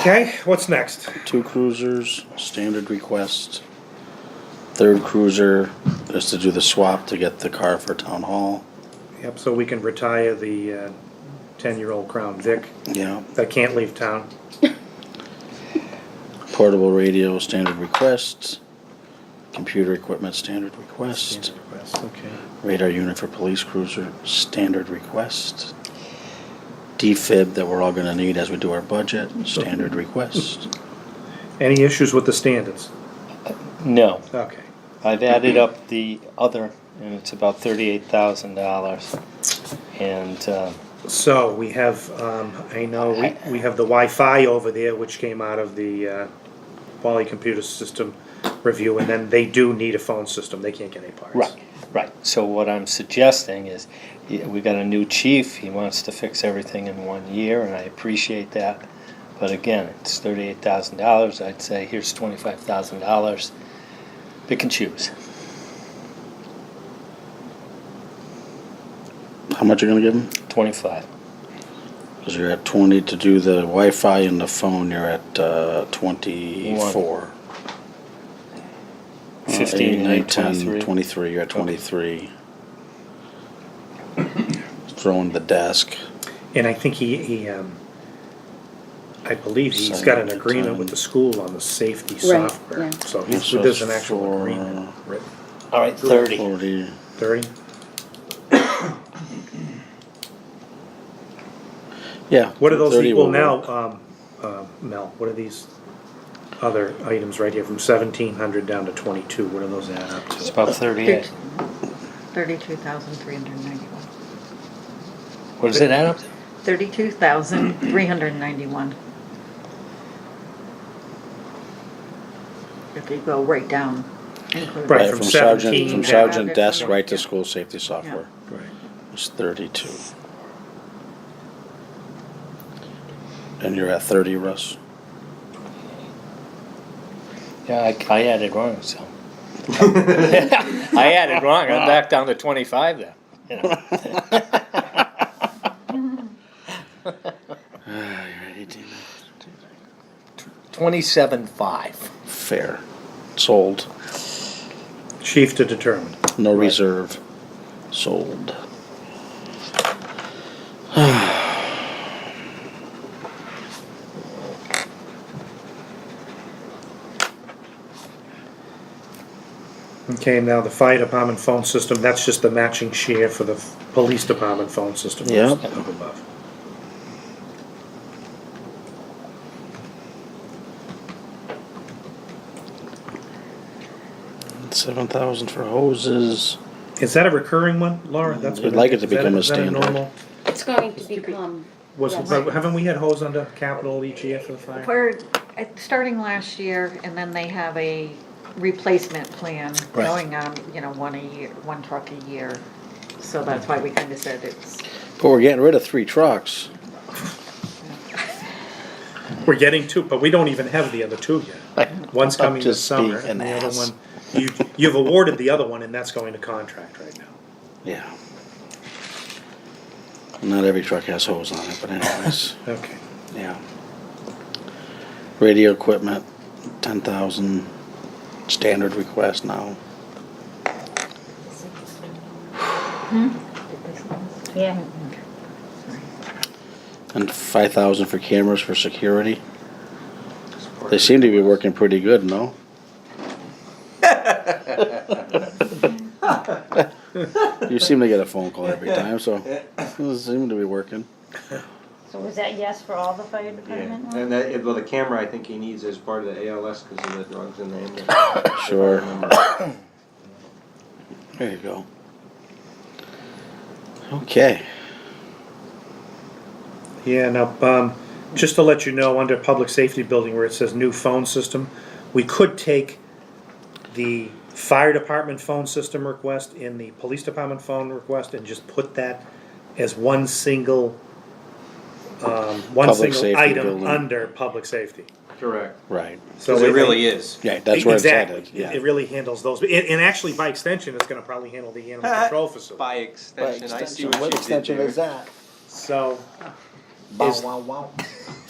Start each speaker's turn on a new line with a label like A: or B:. A: Okay, what's next?
B: Two cruisers, standard request. Third cruiser is to do the swap to get the car for town hall.
A: Yep, so we can retire the uh, ten-year-old Crown Vic
B: Yeah.
A: that can't leave town.
B: Portable radio, standard request. Computer equipment, standard request.
A: Okay.
B: Radar unit for police cruiser, standard request. Defib that we're all gonna need as we do our budget, standard request.
A: Any issues with the standards?
C: No,
A: Okay.
C: I've added up the other, and it's about thirty-eight thousand dollars. And um,
A: So we have, um, I know, we, we have the Wi-Fi over there, which came out of the, uh, Poly Computer System review, and then they do need a phone system, they can't get any parts.
C: right, right. So what I'm suggesting is, y- we got a new chief. He wants to fix everything in one year, and I appreciate that. But again, it's thirty-eight thousand dollars. I'd say here's twenty-five thousand dollars. Pick and choose.
B: How much you gonna give them?
C: Twenty-five.
B: Cause you're at twenty to do the Wi-Fi and the phone, you're at, uh, twenty-four. Uh, eight,
C: Fifteen,
B: nine,
C: eight,
B: 10,
C: twenty-three.
B: Twenty-three, you're at twenty-three. Throwing the desk,
A: And I think he, he, um, I believe he's got an
B: Seven to
A: agreement
B: ten.
A: with the school on the safety
D: Right,
A: software,
D: yeah.
A: so
B: Yeah,
A: he's-
B: so
A: there's an
B: it's
A: actual
B: for-
A: agreement written.
C: All right, thirty.
B: forty,
A: Thirty?
B: yeah.
A: What are those
B: 30
A: equal
B: will
A: now,
B: work.
A: um, uh, Mel? What are these other items right here from seventeen hundred down to twenty-two? What are those add up
C: It's
A: to?
C: about thirty-eight.
D: Thirty-two thousand three hundred ninety-one.
C: What does it add up to?
D: Thirty-two thousand three hundred ninety-one. If you go right down. include-
A: Right,
B: Right,
A: from
B: Uh, from sergeant,
A: 17
B: from
A: down.
B: sergeant desk
D: Yeah.
B: right to school safety software,
A: Right.
B: it's thirty-two. And you're at thirty, Russ?
C: Yeah, I, I added wrong, so. I added wrong, I'm back down to twenty-five then. you know. Twenty-seven-five.
B: Fair, sold,
A: Chief to determine.
B: no reserve, sold.
A: Okay, now the fire department phone system, that's just the matching share for the f- police department phone system.
B: Yeah.
A: Up above.
B: Seven thousand for hoses,
A: Is that a recurring one, Laura? That's
B: We'd like it to
A: is that
B: become a
A: is that
B: standard.
A: normal-
E: It's going to become.
A: Was,
E: Yes.
A: but haven't we had hose under capital each year for the fire?
D: Where, at- starting last year, and then they have a replacement plan
B: Right.
D: going on, you know, one a year, one truck a year. So that's why we kind of said it's,
B: but we're getting rid of three trucks.
A: We're getting two, but we don't even have the other two yet. One's coming this
B: Just being
A: summer, and the
B: an
A: other
B: ass.
A: one, you, you've awarded the other one, and that's going to contract right now.
B: Yeah. Not every truck has hose on it, but anyways,
A: Okay.
B: yeah. Radio equipment, ten thousand, standard request now.
E: Yeah.
B: And five thousand for cameras for security. They seem to be working pretty good, no? You seem to get a phone call every time, so it seemed to be working.
E: So was that yes for all the fire
F: Yeah,
E: department ones?
F: and that, it- well, the camera I think he needs as part of the ALS because of the drugs in the ambulance.
B: Sure.
F: If I remember.
B: There you go. Okay.
A: Yeah, now, um, just to let you know, under public safety building where it says new phone system, we could take the fire department phone system request and the police department phone request and just put that as one single, um, one
B: Public
A: single
B: safety
A: item
B: building.
A: under public safety.
F: Correct.
B: Right.
A: So
F: Because it really is.
B: Yeah, that's where it's
A: Exactly.
B: headed. Yeah.
A: It really handles those, and, and actually by extension, it's gonna probably handle the animal control facility.
F: By extension, I see what you did there.
A: So,
F: Bow,
A: is-
F: wow, wow.